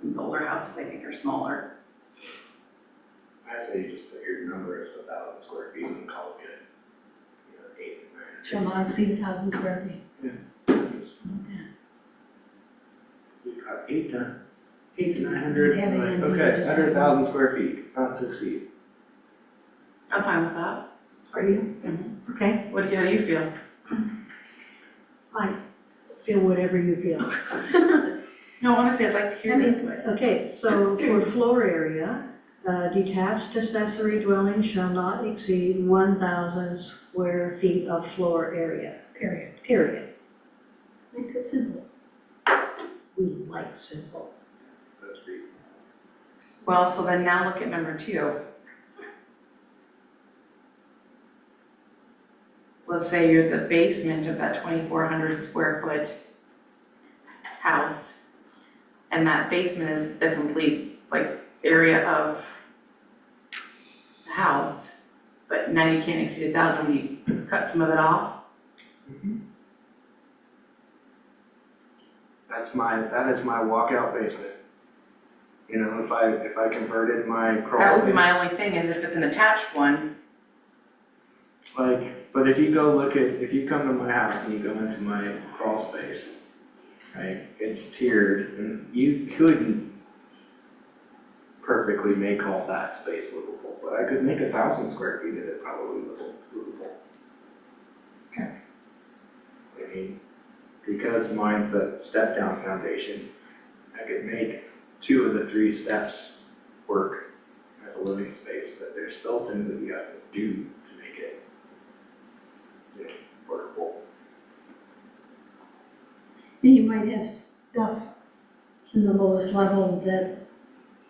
Some older houses, I think, are smaller. I'd say you just put your number as a thousand square feet and call it good. You know, eight, nine. Shall not exceed a thousand square feet. We've got eight to, eight to nine Yeah, but hundred, then you okay, just- hundred thousand square feet, not to exceed. I'm fine with that. Are you? Okay, what, do- how do you feel? feel whatever you feel. No, honestly, I'd like to hear I mean- that, but Okay, so for floor area, uh, detached accessory dwelling shall not exceed 1,000 square feet of floor area, Period. period. Makes it simple. We like simple. That's reasonable. Well, so then now look at number two. Let's say you're the basement of that twenty-four hundred square foot house. And that basement is the complete, like, area of the house. But now you can't exceed a thousand, when you cut some of it off. Mm-hmm. That's my, that is my walkout basement. You know, if I, if I converted my That crawl would be space, my only thing, is if it's an attached one, like, but if you go look at, if you come to my house and you go into my crawl space, right, it's tiered, and you couldn't perfectly make all that space livable, but I could make a thousand square feet of it probably livable. livable. Okay. I mean, because mine's a step down foundation, I could make two of the three steps work as a living space, but there's still things that you have to do to make it you know, workable. Then you might have stuff in the lowest level that,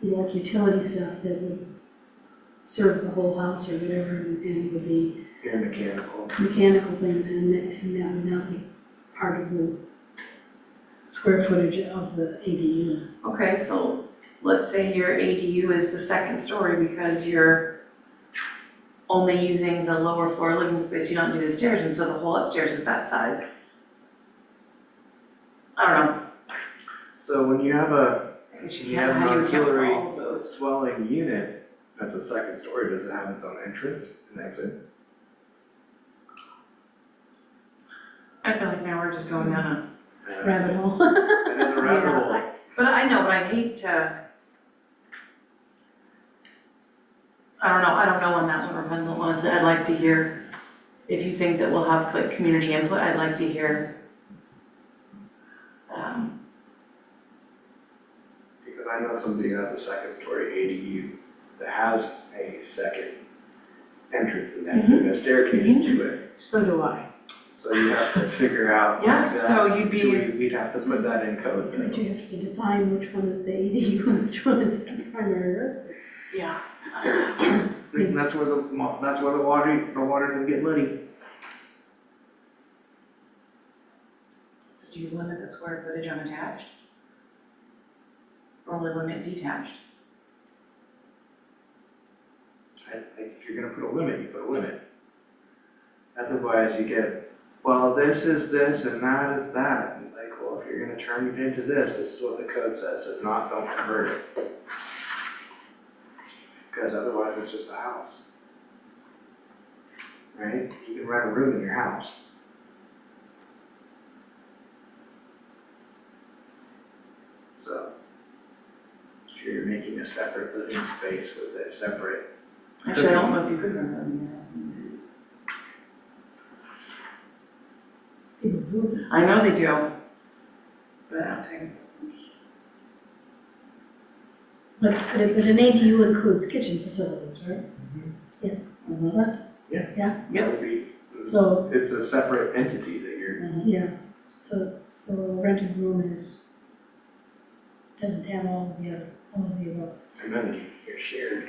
you know, like utility stuff that would serve the whole house or whatever, and and would be You're mechanical. mechanical things, and that, and that would not be part of the square footage of the ADU. Okay, so let's say your ADU is the second story because you're only using the lower floor living space, you don't do the stairs, and so the whole upstairs is that size. I don't know, So when you have a I guess you You can't, have how do you account for auxiliary- all of those? dwelling unit, that's a second story, does it have its own entrance and exit? I feel like now we're just going down a, Uh, Rabbit hole. It has a rabbit Yeah, hole. but I know, but I hate to. I don't know, I don't know on that one, or when the ones that I'd like to hear, if you think that we'll have like community input, I'd like to hear. Um, Because I know somebody who has a second story ADU that has a second entrance and exit, Mm-hmm. a staircase to it. So do I. So you have to figure out like Yeah, that. so you'd Do be, we- We'd have to put that in code. But you have to define which one is the ADU and which one is the primary residence. yeah. I mean, that's where the, mo- that's where the water, the waters gonna get muddy. Did you limit the square footage on attached? Or only limit detached? I think if you're gonna put a limit, you put a limit. Otherwise you get, well, this is this and that is that. And like, well, if you're gonna turn it into this, this is what the code says, if not, don't convert it. Because otherwise it's just a house. Right? You can rent a room in your house. So. If you're making a separate living space with a separate Actually, I don't know if you could remember them. People who yeah. I know they do. But I don't think. But, but it- but an ADU includes kitchen facilities, right? Mhm. Yep. would be- it's- So- It's a separate entity that you're, Mm-hmm. Yeah, so, so a rented room is, doesn't have all of the other, all of the above. amenities, you're shared.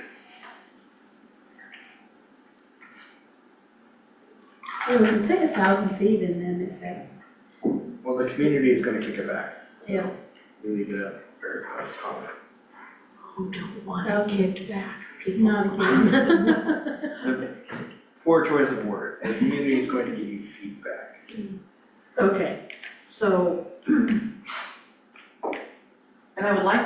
Well, we can say a thousand feet and then if that, Well, the community is gonna kick it back. yeah, We leave it up for com- comment. Who don't want to kicked back? not again. Poor choice of words. The community is going to give you feedback. Okay, so And I would like to